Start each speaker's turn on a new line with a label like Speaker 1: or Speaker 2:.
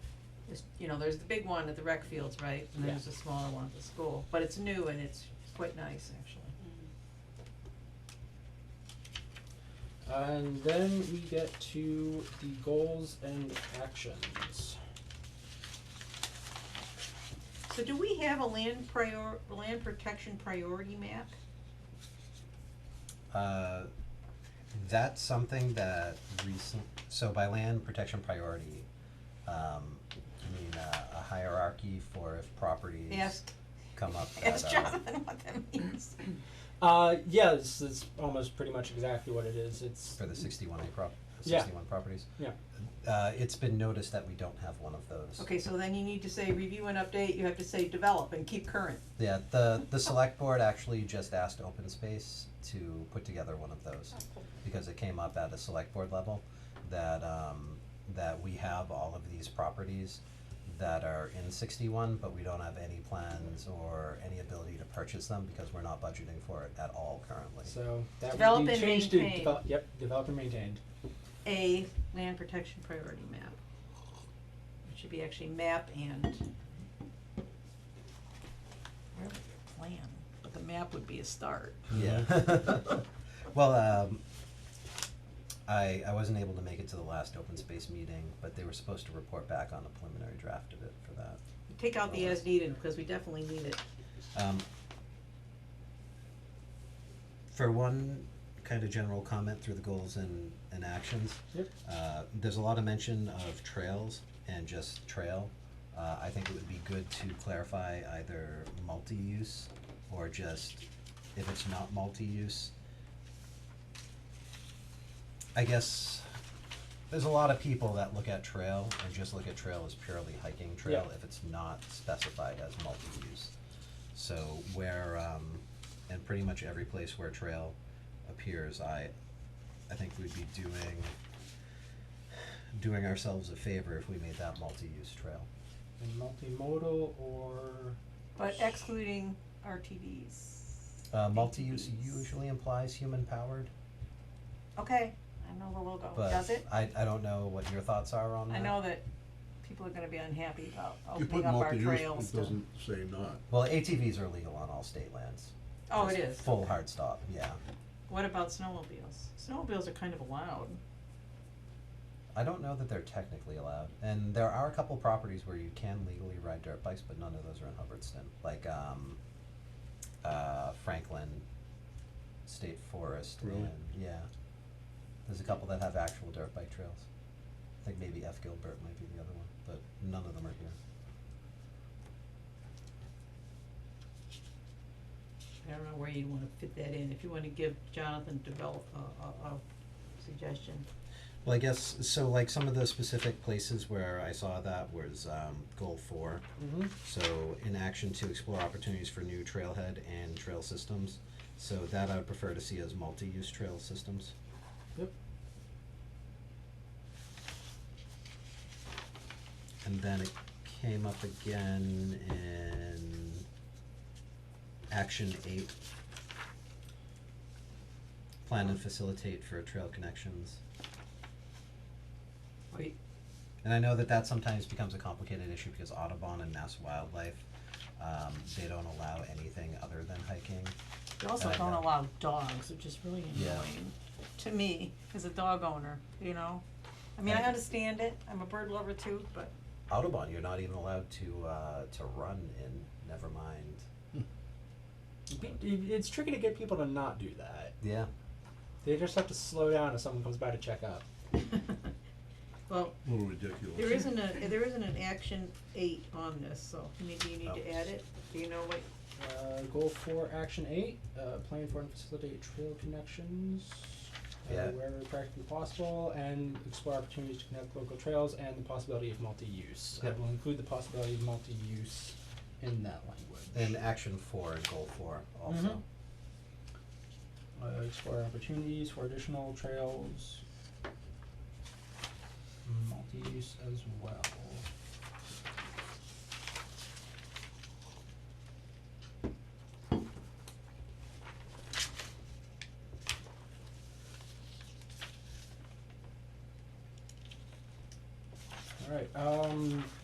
Speaker 1: It's, you know, there's the big one at the rec fields, right, and
Speaker 2: Yeah.
Speaker 1: there's a smaller one at the school, but it's new and it's quite nice, actually.
Speaker 2: And then we get to the goals and actions.
Speaker 1: So do we have a land prior, land protection priority map?
Speaker 3: Uh, that's something that recent, so by land protection priority, um, you mean uh, a hierarchy for if properties
Speaker 1: Ask,
Speaker 3: come up that uh,
Speaker 1: ask
Speaker 3: are.
Speaker 1: Jonathan what that means.
Speaker 2: Uh, yeah, this is almost pretty much exactly what it is. It's
Speaker 3: For the sixty-one A prop,
Speaker 2: Yeah.
Speaker 3: sixty-one properties?
Speaker 2: Yeah.
Speaker 3: Uh, it's been noticed that we don't have one of those.
Speaker 1: Okay, so then you need to say review and update, you have to say develop and keep current.
Speaker 3: Yeah, the, the select board actually just asked Open Space to put together one of those, because it came up at a select board level, that, um, that we have all of these properties that are in sixty-one, but we don't have any plans or any ability to purchase them, because we're not budgeting for it at all currently.
Speaker 2: so that
Speaker 1: Develop
Speaker 2: would be
Speaker 1: and
Speaker 2: changed
Speaker 1: maintain.
Speaker 2: to develop. Yep, develop and maintained.
Speaker 1: A, land protection priority map. It should be actually map and. Where would your plan, but the map would be a start.
Speaker 3: Yeah. well, um, I I wasn't able to make it to the last open space meeting, but they were supposed to report back on a preliminary draft of it for that.
Speaker 1: Take out the as needed, because we definitely need it.
Speaker 3: Um, for one kind of general comment through the goals and, and actions,
Speaker 2: Yep.
Speaker 3: uh, there's a lot of mention of trails and just trail. Uh, I think it would be good to clarify either multi-use or just if it's not multi-use. I guess there's a lot of people that look at trail and just look at trail as purely hiking trail
Speaker 2: Yeah.
Speaker 3: if it's not specified as multi-use. So where, um, and pretty much every place where trail appears, I, I think we'd be doing, doing ourselves a favor if we made that multi-use trail.
Speaker 2: And multimodal or
Speaker 1: But excluding RTVs.
Speaker 3: Uh, multi-use
Speaker 1: ATVs.
Speaker 3: usually implies human-powered,
Speaker 1: Okay, I know the logo, Oh, does
Speaker 3: but
Speaker 1: it?
Speaker 3: I, I don't know what your thoughts are on that.
Speaker 1: I know that people are gonna be unhappy about
Speaker 4: You
Speaker 1: opening
Speaker 4: put
Speaker 1: up our
Speaker 4: multi-use,
Speaker 1: trails
Speaker 4: it
Speaker 1: to-
Speaker 4: doesn't say not.
Speaker 3: Well, ATVs are legal on all state lands.
Speaker 1: Oh, it
Speaker 3: Just
Speaker 1: is.
Speaker 3: Full hard stop, yeah.
Speaker 1: What about snowmobiles? Snowmobiles are kind of allowed.
Speaker 3: I don't know that they're technically allowed, and there are a couple properties where you can legally ride dirt bikes, but none of those are in Hubbardston, like, um, uh, Franklin State Forest
Speaker 4: Really?
Speaker 3: and, yeah. There's a couple that have actual dirt bike trails. I think maybe F Gilbert might be the other one, but none of them are here.
Speaker 1: I don't know where you'd wanna fit that in, if you wanna give Jonathan develop a, a, a suggestion.
Speaker 3: Well, I guess, so like some of the specific places where I saw that was, um, goal four,
Speaker 2: mm-hmm.
Speaker 3: So in action to explore opportunities for new trailhead and trail systems. So that I would prefer to see as multi-use trail systems.
Speaker 2: Yep.
Speaker 3: And then it came up again in action eight. Plan and facilitate for trail connections.
Speaker 1: Wait,
Speaker 3: And I know that that sometimes becomes a complicated issue because Audubon and Mass Wildlife, um, they don't allow anything other than hiking.
Speaker 1: they also
Speaker 3: I
Speaker 1: don't
Speaker 3: know.
Speaker 1: allow dogs, which is really
Speaker 3: Uh, Yeah.
Speaker 1: annoying to me as a dog owner, you know? I mean, I
Speaker 3: Right.
Speaker 1: understand it, I'm a bird lover too, but
Speaker 3: Audubon, you're not even allowed to, uh, to run in, never mind.
Speaker 2: It's tricky to get people to not do that.
Speaker 3: Yeah,
Speaker 2: They just have to slow down if someone comes by to check up.
Speaker 1: Well,
Speaker 4: A little ridiculous.
Speaker 1: there isn't a, there isn't an action eight on this, so maybe you need
Speaker 3: Oh.
Speaker 1: to add it, do you know what,
Speaker 2: Uh, goal four, action eight, uh, plan for and facilitate trail connections uh,
Speaker 3: Yeah.
Speaker 2: wherever practically possible, and explore opportunities to connect local trails and the possibility of multi-use.
Speaker 3: Yep.
Speaker 2: I will include the possibility of multi-use in that language.
Speaker 3: and action four and goal four also.
Speaker 2: Mhm. uh, explore opportunities for additional trails, multi-use as well. All right. Um,